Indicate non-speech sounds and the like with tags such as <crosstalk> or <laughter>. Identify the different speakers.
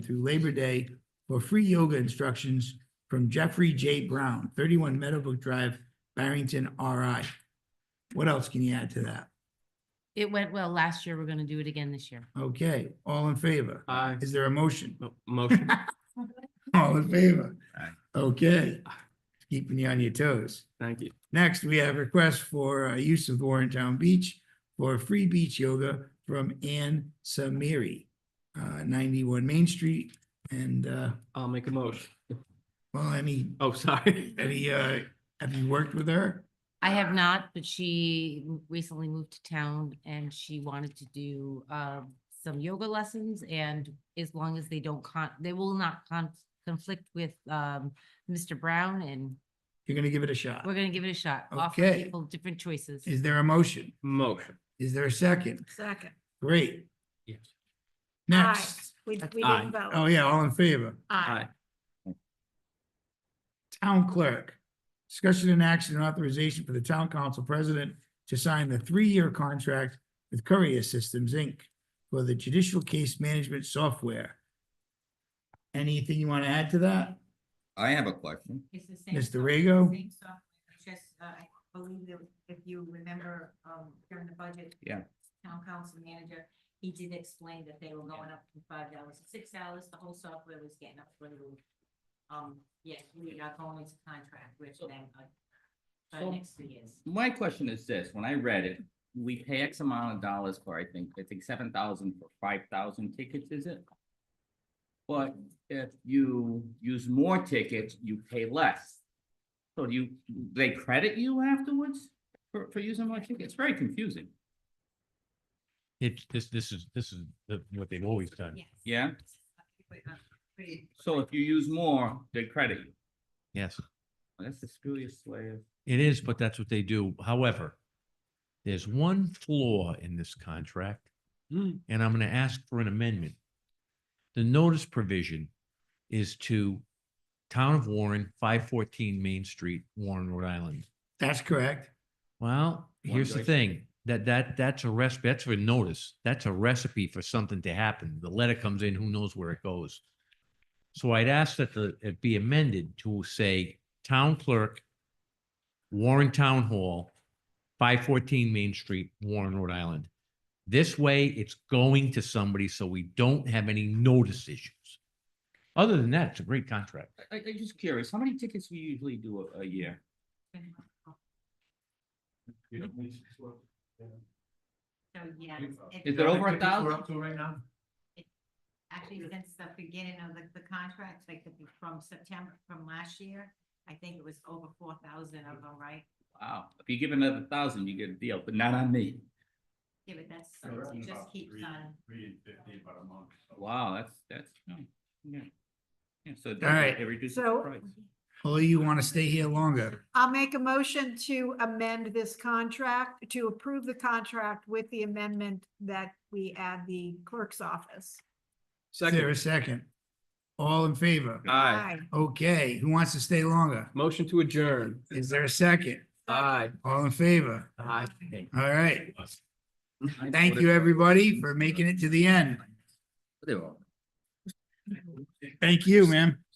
Speaker 1: through Labor Day for free yoga instructions from Jeffrey J. Brown, thirty-one Meadowbrook Drive, Barrington, RI. What else can you add to that?
Speaker 2: It went well last year. We're gonna do it again this year.
Speaker 1: Okay, all in favor?
Speaker 3: Aye.
Speaker 1: Is there a motion?
Speaker 3: Mo- Motion.
Speaker 1: All in favor?
Speaker 3: Aye.
Speaker 1: Okay, keeping you on your toes.
Speaker 3: Thank you.
Speaker 1: Next, we have requests for uh, use of Warrentown Beach for free beach yoga from Ann Samiri, uh, ninety-one Main Street. And, uh,
Speaker 3: I'll make a motion.
Speaker 1: well, any,
Speaker 3: Oh, sorry. <laughs>
Speaker 1: any, uh, have you worked with her?
Speaker 2: I have not, but she m- recently moved to town and she wanted to do um some yoga lessons and as long as they don't con, they will not con- conflict with um Mr. Brown and
Speaker 1: You're gonna give it a shot.
Speaker 2: we're gonna give it a shot. Offer
Speaker 1: Okay.
Speaker 2: people different choices.
Speaker 1: Is there a motion?
Speaker 3: Motion.
Speaker 1: Is there a second?
Speaker 4: Second.
Speaker 1: Great.
Speaker 3: Yes.
Speaker 4: Aye.
Speaker 1: Next,
Speaker 4: We, we
Speaker 2: That's
Speaker 3: aye.
Speaker 4: didn't
Speaker 1: oh
Speaker 4: vote.
Speaker 1: yeah, all in favor?
Speaker 4: Aye.
Speaker 3: Aye.
Speaker 1: Town clerk. Discussion and action and authorization for the town council president to sign the three-year contract with Courier Systems, Inc. for the judicial case management software. Anything you want to add to that?
Speaker 5: I have a question.
Speaker 6: It's the same.
Speaker 1: Mr.
Speaker 6: software,
Speaker 1: Rego?
Speaker 6: Same software, it's just, uh, I believe that if you remember, um, during the budget.
Speaker 5: Yeah.
Speaker 6: Town council manager, he did explain that they were going up from five dollars to six dollars, the whole software was getting up for the roof. Um, yes, we are going into contract with them, uh, for the
Speaker 5: So-
Speaker 6: next three years.
Speaker 5: My question is this, when I read it, we pay X amount of dollars for, I think, I think seven thousand for five thousand tickets, is it? But if you use more tickets, you pay less. So do you, they credit you afterwards for, for using more tickets? It's very confusing.
Speaker 7: It, this, this is, this is the- what they've always done.
Speaker 6: Yes.
Speaker 5: Yeah.
Speaker 6: Pretty-
Speaker 5: So if you use more, they credit you.
Speaker 7: Yes,
Speaker 5: That's the screwiest way of.
Speaker 7: it is, but that's what they do. However, there's one flaw in this contract,
Speaker 3: Hmm.
Speaker 7: and I'm going to ask for an amendment. The notice provision is to Town of Warren, five fourteen Main Street, Warren, Rhode Island.
Speaker 1: That's correct.
Speaker 7: Well,
Speaker 5: One
Speaker 7: here's the
Speaker 5: choice.
Speaker 7: thing, that, that, that's a recipe, that's a notice, that's a recipe for something to happen. The letter comes in, who knows where it goes. So I'd ask that the, it be amended to say town clerk, Warren Town Hall, five fourteen Main Street, Warren, Rhode Island. This way, it's going to somebody, so we don't have any notice issues. Other than that, it's a great contract.
Speaker 5: I, I- I'm just curious, how many tickets we usually do a, a year?
Speaker 6: So, yeah. it's-
Speaker 5: Is it over a thousand?
Speaker 6: Actually, since the beginning of the, the contract, like the- from September, from last year, I think it was over four thousand of them, right?
Speaker 5: Wow, if you give another thousand, you get a deal, but not on me.
Speaker 6: Yeah, but that's, it just keeps on.
Speaker 5: Wow, that's, that's, oh, yeah. Yeah, so. it-
Speaker 1: right.
Speaker 5: It reduces the
Speaker 4: So-
Speaker 5: price.
Speaker 1: Although you want to stay here longer.
Speaker 4: I'll make a motion to amend this contract, to approve the contract with the amendment that we add the clerk's office.
Speaker 1: Is there a
Speaker 3: Second.
Speaker 1: second? All in favor?
Speaker 3: Aye.
Speaker 1: Okay, who wants to stay longer?
Speaker 3: Motion to adjourn.
Speaker 1: Is there a second?
Speaker 3: Aye.
Speaker 1: All in favor?
Speaker 3: Aye.
Speaker 1: All right.
Speaker 5: I
Speaker 1: Thank
Speaker 5: voted-
Speaker 1: you, everybody, for making it to the end.
Speaker 5: They were all-
Speaker 1: Thank you, ma'am.